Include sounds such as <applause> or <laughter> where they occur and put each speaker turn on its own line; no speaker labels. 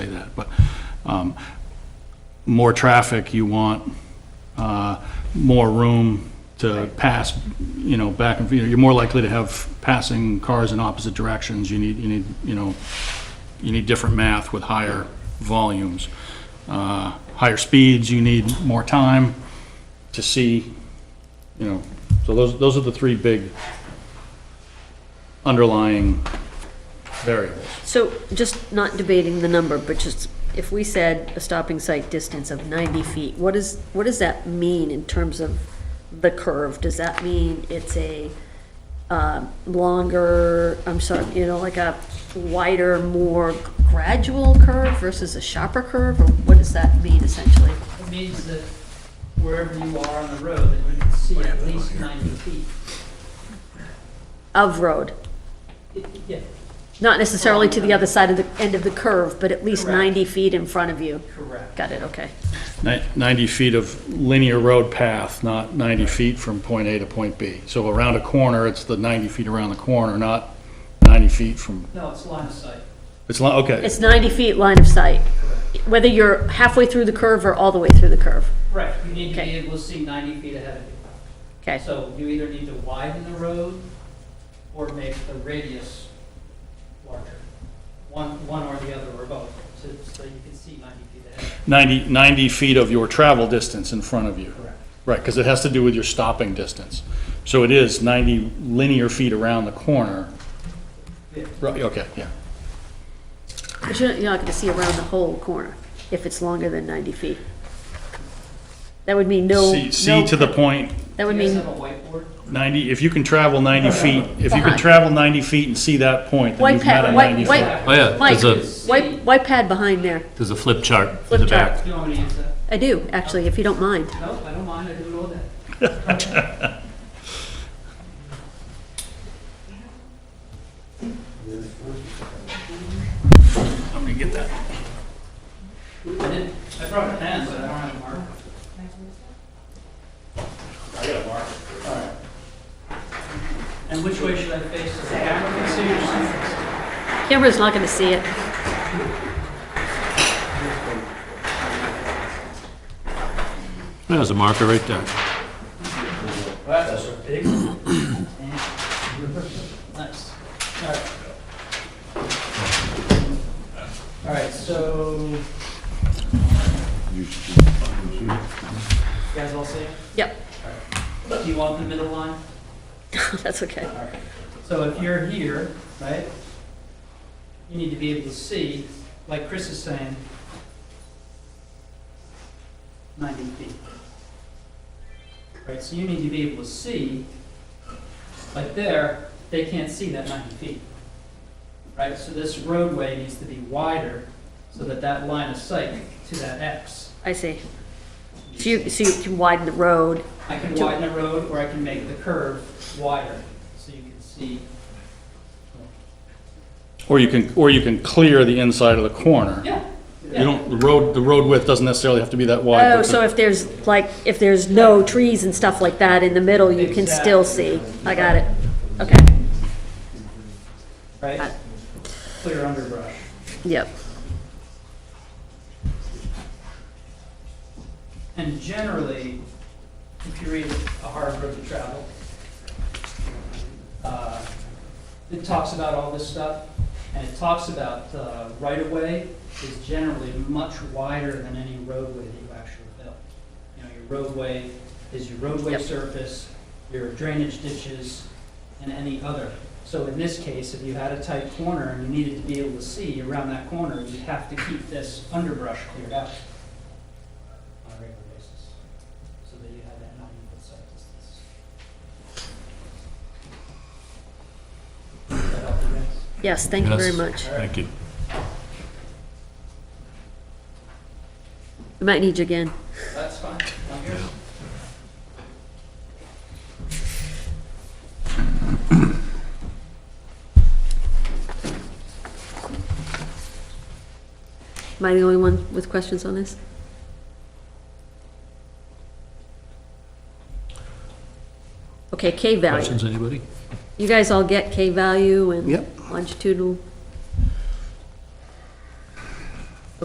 um, more traffic, you want uh, more room to pass, you know, back and, you know, you're more likely to have passing cars in opposite directions. You need, you need, you know, you need different math with higher volumes. Uh, Higher speeds, you need more time to see, you know, so those, those are the three big underlying variables.
So just not debating the number, but just if we said a stopping site distance of 90 feet, what is, what does that mean in terms of the curve? Does that mean it's a uh, longer, I'm sorry, you know, like a wider, more gradual curve versus a sharper curve? Or what does that mean essentially?
It means that wherever you are on the road, that you can see at least ninety feet.
Of road,
It- Yeah,
not necessarily to the other side of the, end of the curve, but at least
Correct.
90 feet in front of you.
correct.
Got it, okay.
Ni- 90 feet of linear road path, not 90 feet from point A to point B. So around a corner, it's the 90 feet around the corner, not 90 feet from,
No, it's line of sight,
it's, li- okay,
It's 90 feet line of sight.
correct.
whether you're halfway through the curve or all the way through the curve.
Right, you need to be
Okay.
able to see ninety feet ahead of you.
Okay,
So you either need to widen the road or make the radius larger. One, one or the other, or both, so, so you can see ninety feet ahead.
90, 90 feet of your travel distance in front of you.
Correct.
Right, because it has to do with your stopping distance. So it is 90 linear feet around the corner.
Yeah.
Right, okay, yeah.
but you're not, you're not gonna see around the whole corner if it's longer than ninety feet. That would mean no,
See, see
no,
to the point,
that would
Do you
mean,
guys have a whiteboard?
90, if you can travel 90 feet, if you can
Behind.
travel 90 feet and see that point, then
White
you've met
pa-
a
white-
90
white-
foot.
Correct.
Oh, yeah,
Mike,
there's a,
white, white pad behind there.
there's a flip chart in
Flip
the
chart.
back.
Do you want me to use that?
I do, actually, if you don't mind.
No, I don't mind, I didn't know that.
I'm gonna get that.
I did, I brought a pen, but I don't have a marker. I got a marker. All right. And which way should I face, the back of the city or something?
Camera's not gonna see it.
There's a marker right there.
That's a big one. <coughs> Nice. All right. All right, so. You guys all see? it?
Yep, <laughs>
Do you want the middle line?
that's okay.
So if you're here, right, you need to be able to see, like Chris is saying, 90 feet. Right, so you need to be able to see, like there, they can't see that 90 feet. Right, so this roadway needs to be wider so that that line of sight to that X.
I see. So you, so you can widen the road.
I can widen the road or I can make the curve wider so you can see.
Or you can, or you can clear the inside of the corner.
Yeah.
You don't, the road, the road width doesn't necessarily have to be that wide.
Oh,
but
so if there's, like, if there's no trees and stuff like that in the middle, you can still see. I got it. Okay,
Right? Clear underbrush.
yep.
And generally, if you read A Hard Road to Travel, uh, it talks about all this stuff, and it talks about uh, right-of-way is generally much wider than any roadway that you actually build. You know, your roadway is your roadway
Yep.
surface, your drainage ditches, and any other. So in this case, if you had a tight corner and you needed to be able to see around that corner, you'd have to keep this underbrush cleared out on a regular basis, so that you have that ninety-foot sight distance. Does that help you guys?
Yes, thank you very
Yes.
much.
Thank you.
We might need you again.
That's fine, I'm here.
Am I the only one with questions on this? Okay, K value.
Questions, anybody?
You guys all get K value and
Yep.
longitudinal